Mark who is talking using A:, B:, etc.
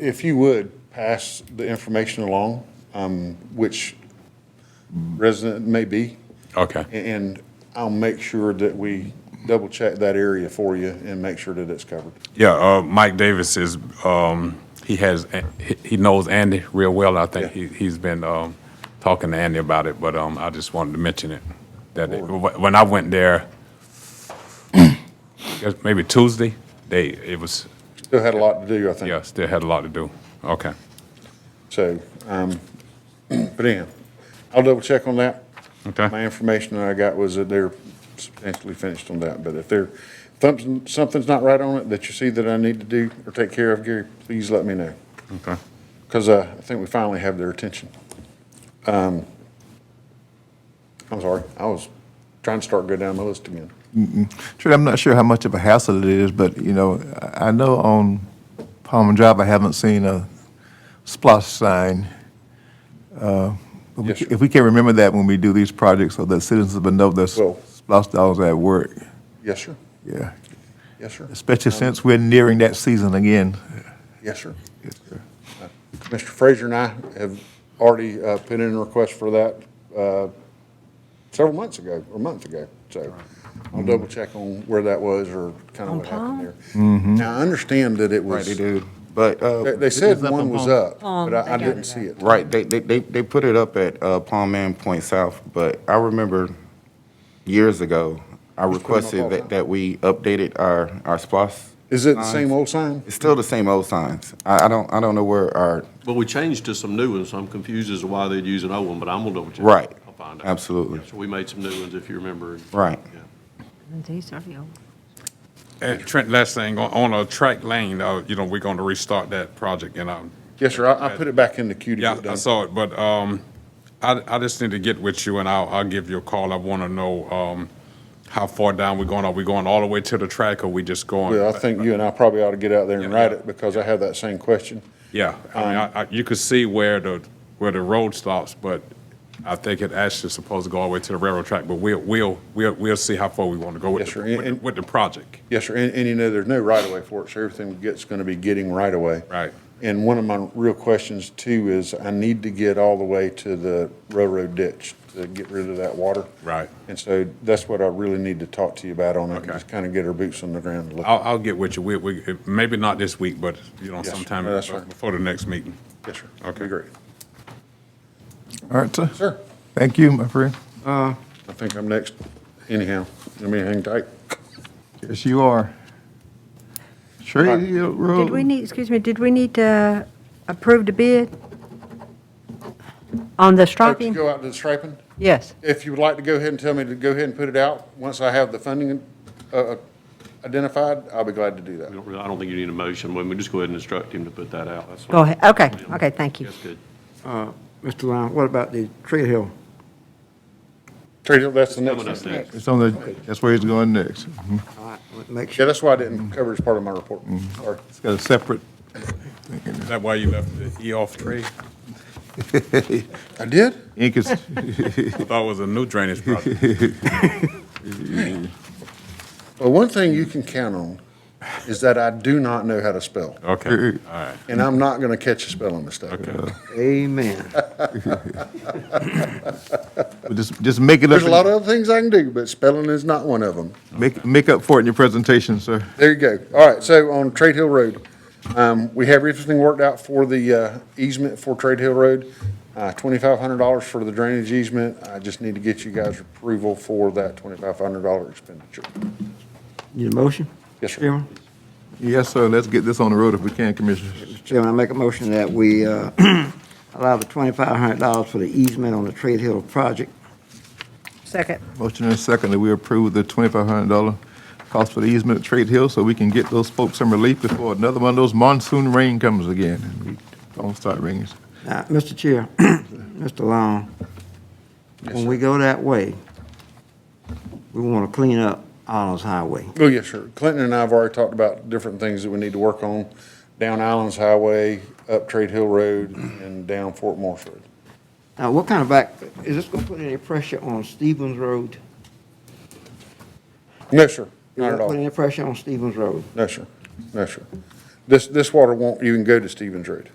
A: If you would, pass the information along, um, which resident it may be,
B: Okay.
A: and I'll make sure that we double-check that area for you and make sure that it's covered.
B: Yeah, uh, Mike Davis is, um, he has, he- he knows Andy real well. I think he, he's been, um, talking to Andy about it, but, um, I just wanted to mention it. That, it- wh- when I went there, guess maybe Tuesday, they, it was,
A: Still had a lot to do, I think.
B: yeah, still had a lot to do. Okay.
A: So, um, but anyhow, I'll double-check on that. My
B: Okay.
A: information that I got was that they're substantially finished on that, but if there, something, something's not right on it that you see that I need to do or take care of, Gary, please let me know.
B: Okay.
A: because uh, I think we finally have their attention. Um, I'm sorry, I was trying to start go down the list again.
C: Trudy, I'm not sure how much of a hassle it is, but, you know, I I know on Palmer Drive, I haven't seen a splosh sign. Uh, but we-
A: Yes, sir.
C: If we can remember that when we do these projects, so that citizens will know there's
A: Well-
C: splosh dollars at work,
A: Yes, sir.
C: yeah.
A: Yes, sir.
C: Especially since we're nearing that season again.
A: Yes, sir.
C: Yes, sir.
A: Mr. Frazier and I have already uh, put in a request for that uh, several months ago, or a month ago. So I'll double check on where that was or kind of what happened there. Now, I understand that it was,
D: Right, they
A: they
D: do. But,
A: they
D: uh,
A: said one was up,
E: Palm,
A: but I I
E: they got it
A: didn't see
E: up.
A: it.
D: right, they, they, they, they put it up at, uh, Palm Man Point South, but I remember years ago, I
A: all
D: requested
A: the time.
D: that, that we updated our, our SPOS.
A: Is it the
D: signs.
A: same old sign?
D: It's still the same old signs. I, I don't, I don't know where our,
F: Well, we changed to some new ones, so I'm confused as to why they'd use an old one, but I'm gonna double check.
D: Right.
F: I'll find out.
D: Absolutely.
F: So we made some new ones, if you remember.
D: Right.
F: Yeah.
E: These are the old.
B: And Trent, last thing, on, on a track lane, uh, you know, we're going to restart that project and, um,
A: Yes, sir. I I put it back in the queue to
B: Yeah,
A: get
B: I
A: done.
B: saw it, but um, I, I just need to get with you and I'll, I'll give you a call. I want to know um, how far down we're going. Are we going all the way to the track or we just going?
A: Well, I think you and I probably ought to get out there and
B: Yeah,
A: write
B: yeah.
A: it because I have that same question.
B: Yeah, I mean,
A: um,
B: I, I, you could see where the, where the road stops, but I think it actually is supposed to go all the way to the railroad track, but we'll, we'll, we'll, we'll see how far we want to go with,
A: Yes,
B: the-
A: sir, and-
B: with the- with the project.
A: Yes, sir. And, and you know, there's no right of way for it, so everything we get's going to be getting right away.
B: Right.
A: And one of my real questions too is I need to get all the way to the railroad ditch to get rid of that water.
B: Right.
A: And so that's what I really need to talk to you about on it.
B: Okay.
A: Just kind of get our boots on the ground. and look.
B: I'll, I'll get with you. We, we, maybe not this week, but you know,
A: Yes, sir.
B: sometime
A: No, that's fine.
B: before the next meeting.
A: Yes, sir.
B: Okay.
A: Great.
C: All right, sir.
A: Sir,
C: Thank you, my friend.
A: I think I'm next anyhow. Let me hang tight.
C: Yes, you are. Trudy Hill
E: Did we
C: Road.
E: need, excuse me, did we need to approve the bid? On the
A: Hope to
E: striping?
A: Go out to the striping?
E: Yes.
A: If you would like to go ahead and tell me to go ahead and put it out, once I have the funding uh, identified, I'll be glad to do
F: We
A: that.
F: don't really, I don't think you need a motion, we we just go ahead and instruct him to put that out. That's what-
E: Go ahead, okay, okay, thank you.
F: That's good.
G: Mr. Lyon, what about the Tree Hill?
A: Terry, that's the next
F: Coming up
A: one.
F: next.
C: It's on the, that's where he's going next. Mhm.
G: All right, make
A: Yeah,
G: sure,
A: that's why I didn't cover it as part of my report. Sorry.
C: It's got a separate,
B: Is that why you left the E off tree?
A: I did?
C: ink is,
B: I thought it was a new drainage project.
A: Well, one thing you can count on is that I do not know how to spell,
B: Okay, all right.
A: and I'm not going to catch a spelling mistake.
G: amen.
C: just, just make it up.
A: There's a
C: in-
A: lot of other things I can do, but spelling is not one of them.
C: Make, make up for it in your presentation, sir.
A: There you go. All right, so on Trade Hill Road, um, we have everything worked out for the uh, easement for Trade Hill Road. Uh, twenty-five hundred dollars for the drainage easement. I just need to get you guys approval for that twenty-five hundred dollar expenditure.
G: Need a motion?
A: Yes, sir.
G: Chairman?
C: Yes, sir, let's get this on the road if we can, Commissioners.
G: Mr. Chairman, I make a motion that we uh, allow the twenty-five hundred dollars for the easement on the Tree Hill project.
E: Second.
C: Motion and second that we approve the twenty-five hundred dollar cost for the easement at Trade Hill so we can get those folks some relief before another one of those monsoon rain comes again. and we Don't start raining.
G: Now, Mr. Chair, Mr. Long, when we go that way, we want to clean up Arnold's Highway.
A: Oh, yes, sir. Clinton and I have already talked about different things that we need to work on. Down Islands Highway, up Trade Hill Road, and down Fort Morse Road.
G: Now, what kind of back, is this going to put any pressure on Stevens Road?
A: No, sir,
G: Is
A: not at
G: that Put
A: all.
G: any pressure on Stevens Road?
A: No, sir, no, sir. This, this water won't even go to Stevens Road.